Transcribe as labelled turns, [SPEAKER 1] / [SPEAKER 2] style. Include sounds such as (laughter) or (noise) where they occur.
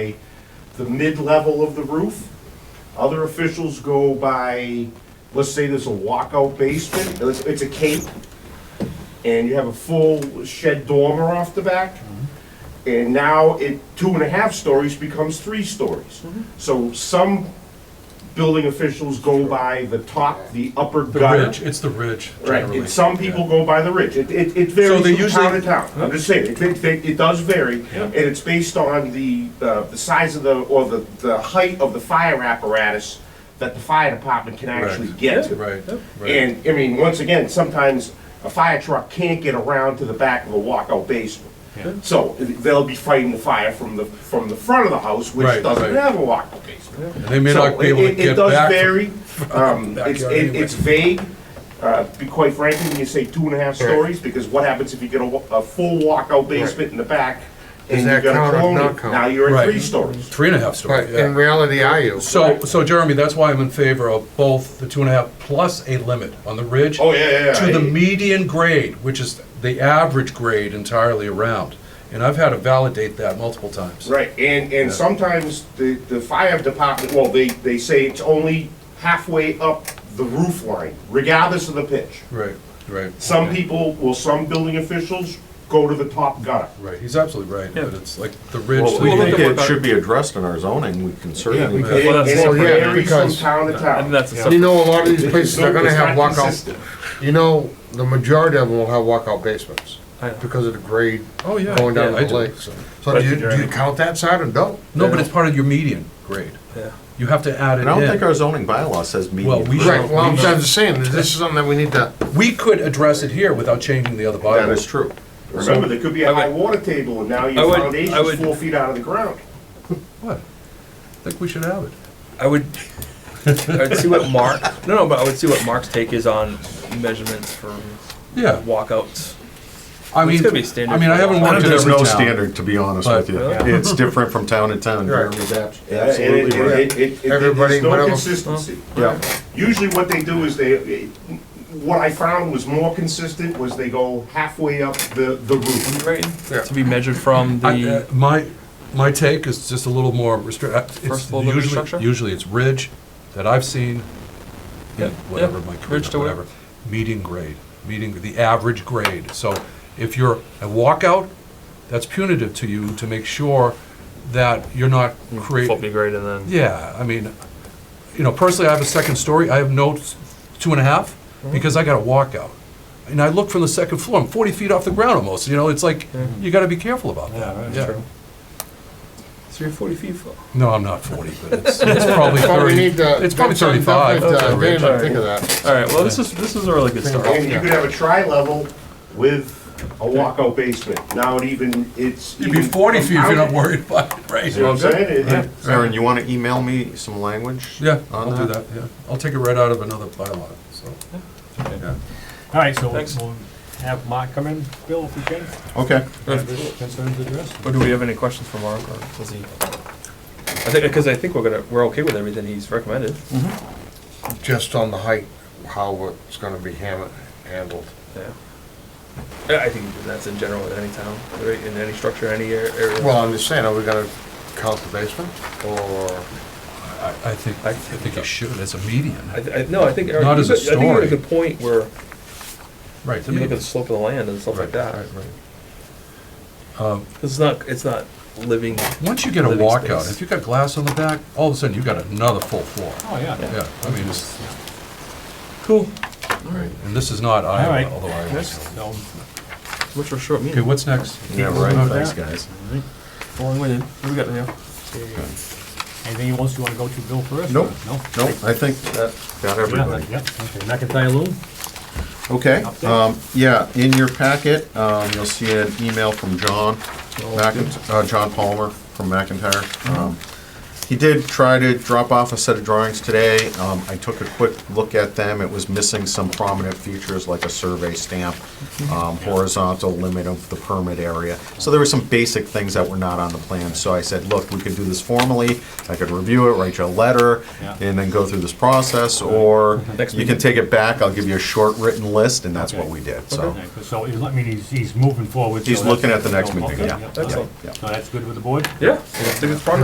[SPEAKER 1] the mid-level of the roof. Other officials go by, let's say there's a walkout basement, it's, it's a cape, and you have a full shed dormer off the back. And now it, two and a half stories becomes three stories. So some building officials go by the top, the upper
[SPEAKER 2] The
[SPEAKER 1] gutter.
[SPEAKER 2] ridge, it's the ridge
[SPEAKER 1] Right,
[SPEAKER 2] generally.
[SPEAKER 1] and some people go by the ridge. It, it, it varies
[SPEAKER 2] So they
[SPEAKER 1] from town to
[SPEAKER 2] usually-
[SPEAKER 1] town. I'm just saying, it, it, it does vary.
[SPEAKER 2] Yeah.
[SPEAKER 1] And it's based on the, uh, the size of the, or the, the height of the fire apparatus that the fire department can actually
[SPEAKER 2] Correct.
[SPEAKER 1] get to.
[SPEAKER 2] Right, right.
[SPEAKER 1] And, I mean, once again, sometimes a fire truck can't get around to the back of a walkout basement.
[SPEAKER 2] Yeah.
[SPEAKER 1] So they'll be fighting the fire from the, from the front of the house, which
[SPEAKER 2] Right,
[SPEAKER 1] doesn't
[SPEAKER 2] right.
[SPEAKER 1] have a walkout basement.
[SPEAKER 2] And They may
[SPEAKER 1] So
[SPEAKER 2] not be able to
[SPEAKER 1] it- it-
[SPEAKER 2] get back.
[SPEAKER 1] It does
[SPEAKER 2] from- (laughs)
[SPEAKER 1] vary. Um, It's,
[SPEAKER 2] backyard
[SPEAKER 1] it-
[SPEAKER 2] anyway.
[SPEAKER 1] it's vague, uh, to be quite frankly, when you say two and a half stories, because what happens if you get a, wa- a full walkout basement in the back? and
[SPEAKER 3] Does
[SPEAKER 1] you
[SPEAKER 3] that
[SPEAKER 1] got a
[SPEAKER 3] count or
[SPEAKER 1] colonial?
[SPEAKER 3] not count?
[SPEAKER 1] Now you're at
[SPEAKER 2] Right.
[SPEAKER 1] three stories.
[SPEAKER 2] Three and a half
[SPEAKER 3] But
[SPEAKER 2] story,
[SPEAKER 3] in
[SPEAKER 2] yeah.
[SPEAKER 3] reality, are you?
[SPEAKER 2] So, so Jeremy, that's why I'm in favor of both the two and a half plus a limit on the ridge.
[SPEAKER 1] Oh, yeah, yeah, yeah.
[SPEAKER 2] To the
[SPEAKER 1] I-
[SPEAKER 2] median grade, which is the average grade entirely around. And I've had to validate that multiple times.
[SPEAKER 1] Right, and, and sometimes the, the fire department, well, they, they say it's only halfway up the roof line, regardless of the pitch.
[SPEAKER 2] Right, right.
[SPEAKER 1] Some
[SPEAKER 2] Okay.
[SPEAKER 1] people, well, some building officials go to the top gutter.
[SPEAKER 2] Right, he's absolutely right, but it's like the ridge.
[SPEAKER 4] Well,
[SPEAKER 2] to
[SPEAKER 4] we
[SPEAKER 2] the-
[SPEAKER 4] think it should be addressed in our zoning, we can certainly.
[SPEAKER 1] And
[SPEAKER 4] do
[SPEAKER 1] and
[SPEAKER 4] that.
[SPEAKER 3] that's-
[SPEAKER 1] it
[SPEAKER 3] Well, yeah,
[SPEAKER 1] varies from
[SPEAKER 3] because-
[SPEAKER 1] town to
[SPEAKER 4] And
[SPEAKER 1] town.
[SPEAKER 4] that's a
[SPEAKER 3] You
[SPEAKER 4] separate,
[SPEAKER 3] know, a lot of these
[SPEAKER 1] It's
[SPEAKER 3] places
[SPEAKER 1] no-
[SPEAKER 3] are gonna
[SPEAKER 1] it's
[SPEAKER 3] have
[SPEAKER 1] not
[SPEAKER 3] walkout,
[SPEAKER 1] consistent.
[SPEAKER 3] you know, the majority of them will have walkout basements because of the grade
[SPEAKER 2] Oh, yeah.
[SPEAKER 3] going
[SPEAKER 2] yeah,
[SPEAKER 3] down to
[SPEAKER 2] I
[SPEAKER 3] the
[SPEAKER 2] do.
[SPEAKER 3] lake. So do you, do you count that side or don't?
[SPEAKER 2] No, but it's part of your median grade.
[SPEAKER 4] yeah.
[SPEAKER 2] You have to add it
[SPEAKER 4] I
[SPEAKER 2] in.
[SPEAKER 4] don't think our zoning bylaw says
[SPEAKER 2] Well, we
[SPEAKER 4] median.
[SPEAKER 3] Right, well, I'm just saying, that this is something that we need to,
[SPEAKER 2] We could address it here without changing the other
[SPEAKER 4] That
[SPEAKER 2] bylaw.
[SPEAKER 4] is true.
[SPEAKER 1] Remember, there could be a
[SPEAKER 5] I would-
[SPEAKER 1] high water table, and now
[SPEAKER 5] I
[SPEAKER 1] your
[SPEAKER 5] would- I
[SPEAKER 1] foundation's
[SPEAKER 5] would-
[SPEAKER 1] four feet out of the ground.
[SPEAKER 2] What? I think we should have it.
[SPEAKER 5] I would, I would see what Mark, no, no, but I would see what Mark's take is on measurements for
[SPEAKER 2] Yeah,
[SPEAKER 5] walkouts.
[SPEAKER 2] I
[SPEAKER 5] It's
[SPEAKER 2] mean,
[SPEAKER 5] gonna be standard
[SPEAKER 2] I mean, I
[SPEAKER 5] for
[SPEAKER 2] haven't
[SPEAKER 5] all.
[SPEAKER 2] worked in
[SPEAKER 4] There's
[SPEAKER 2] every
[SPEAKER 4] no
[SPEAKER 2] town.
[SPEAKER 4] standard, to be honest
[SPEAKER 2] But-
[SPEAKER 4] with you.
[SPEAKER 5] Yeah.
[SPEAKER 4] It's different from town to town.
[SPEAKER 3] Right.
[SPEAKER 4] Absolutely
[SPEAKER 1] And it-
[SPEAKER 4] right.
[SPEAKER 1] it- it- it- it-
[SPEAKER 3] Everybody,
[SPEAKER 1] There's no
[SPEAKER 3] whatever.
[SPEAKER 1] consistency.
[SPEAKER 4] Yeah.
[SPEAKER 1] Usually what they do is they, it- what I found was more consistent was they go halfway up the, the roof.
[SPEAKER 5] Right,
[SPEAKER 3] Yeah.
[SPEAKER 5] to be measured from
[SPEAKER 2] I- uh,
[SPEAKER 5] the,
[SPEAKER 2] My, my take is just a little more restrictive.
[SPEAKER 5] First floor living structure?
[SPEAKER 2] Usually it's ridge that I've seen,
[SPEAKER 5] Yeah,
[SPEAKER 2] in whatever,
[SPEAKER 5] yeah.
[SPEAKER 2] my career,
[SPEAKER 5] Ridge to
[SPEAKER 2] whatever. Median grade, median, the average grade. So if you're a walkout, that's punitive to you to make sure that you're not
[SPEAKER 5] Hmm,
[SPEAKER 2] creating.
[SPEAKER 5] faulty grade and then.
[SPEAKER 2] Yeah, I mean, you know, personally, I have a second story, I have no s- two and a half, because I got a walkout. And I look from the second floor, I'm forty feet off the ground almost, you know, it's like, you gotta be careful about that. Yeah.
[SPEAKER 5] So you're forty feet full.
[SPEAKER 2] No, I'm not forty, but it's, it's probably
[SPEAKER 3] but we
[SPEAKER 2] thirty,
[SPEAKER 3] need to.
[SPEAKER 2] it's probably
[SPEAKER 3] that's something
[SPEAKER 2] thirty-five.
[SPEAKER 3] definitely,
[SPEAKER 2] at
[SPEAKER 3] uh,
[SPEAKER 2] the
[SPEAKER 3] They
[SPEAKER 2] ridge.
[SPEAKER 3] didn't think of that.
[SPEAKER 5] All right, well, this is, this is a really good
[SPEAKER 4] Oh,
[SPEAKER 5] start.
[SPEAKER 1] And you could have a tri-level with a walkout basement. Now it even, it's.
[SPEAKER 2] You'd be
[SPEAKER 1] even
[SPEAKER 2] forty feet if you're not
[SPEAKER 1] compounded.
[SPEAKER 2] worried about it,
[SPEAKER 1] You know what I'm
[SPEAKER 2] right?
[SPEAKER 1] saying? It- it-
[SPEAKER 4] Aaron, you want to email me some language?
[SPEAKER 2] Yeah,
[SPEAKER 4] on
[SPEAKER 2] I'll do that, yeah, I'll take it right out of another bylaw, so. Yeah.
[SPEAKER 6] All right, so
[SPEAKER 5] Thanks.
[SPEAKER 6] we'll have Mark come in, Bill, if you can.
[SPEAKER 4] Okay.
[SPEAKER 6] Have his concerns addressed.
[SPEAKER 5] Or do we have any questions for Mark or does he? I think, because I think we're gonna, we're okay with everything he's recommended.
[SPEAKER 3] Just on the height, how it's gonna be hammered, handled.
[SPEAKER 5] Yeah. Yeah, I think that's in general in any town, right, in any structure, any ar- area.
[SPEAKER 3] Well, I'm just saying, are we gonna count the basement or?
[SPEAKER 2] I, I think,
[SPEAKER 5] I
[SPEAKER 2] I think you should, as a median,
[SPEAKER 5] I, th- I, no, I think, Eric,
[SPEAKER 2] Not
[SPEAKER 5] you
[SPEAKER 2] as a
[SPEAKER 5] got- I think you're
[SPEAKER 2] story.
[SPEAKER 5] at a good point where
[SPEAKER 2] right.
[SPEAKER 5] you look at
[SPEAKER 2] median.
[SPEAKER 5] the slope of the land and stuff like
[SPEAKER 2] Right,
[SPEAKER 5] that.
[SPEAKER 2] Right, right. Um,
[SPEAKER 5] It's not, it's not living,
[SPEAKER 2] Once you get a
[SPEAKER 5] Living
[SPEAKER 2] walkout,
[SPEAKER 5] space.
[SPEAKER 2] if you've got glass on the back, all of a sudden you've got another full floor.
[SPEAKER 6] Oh, yeah.
[SPEAKER 2] Yeah, I mean, it's,
[SPEAKER 5] cool,
[SPEAKER 2] and this is not Iowa,
[SPEAKER 6] right.
[SPEAKER 2] although Iowa.
[SPEAKER 6] So,
[SPEAKER 5] which we're short
[SPEAKER 2] Okay,
[SPEAKER 5] meeting.
[SPEAKER 2] what's next?
[SPEAKER 4] Yeah,
[SPEAKER 2] Okay.
[SPEAKER 4] right, thanks, guys.
[SPEAKER 5] Long way in. What we got there?
[SPEAKER 6] anything else you wanna go to, Bill, first?
[SPEAKER 4] Nope.
[SPEAKER 6] No?
[SPEAKER 4] Nope, I think that got everybody.
[SPEAKER 6] Yeah, okay, McIntyre Loom?
[SPEAKER 4] Okay,
[SPEAKER 6] Update?
[SPEAKER 2] Uh,
[SPEAKER 4] um, yeah, in your packet, um, you'll see an email from John, Mcint- uh, John Palmer from McIntyre. Um, He did try to drop off a set of drawings today. Um, I took a quick look at them. It was missing some prominent features like a survey stamp, um, horizontal limit of the permit area. So there were some basic things that were not on the plan. So I said, look, we could do this formally. I could review it, write you a letter,
[SPEAKER 6] Yeah.
[SPEAKER 4] and then go through this process, or
[SPEAKER 5] Next
[SPEAKER 4] you can take it back, I'll give you a short written list, and that's what
[SPEAKER 6] Okay.
[SPEAKER 4] we did, so.
[SPEAKER 6] Okay, So, he's- I mean, he's, he's moving forward. so
[SPEAKER 4] He's
[SPEAKER 6] that's-
[SPEAKER 4] looking at the next
[SPEAKER 6] Okay,
[SPEAKER 4] meeting, yeah.
[SPEAKER 6] all right.
[SPEAKER 5] Excellent.
[SPEAKER 4] Yeah.
[SPEAKER 6] So that's good with the board?
[SPEAKER 5] Yeah, I think it's progress.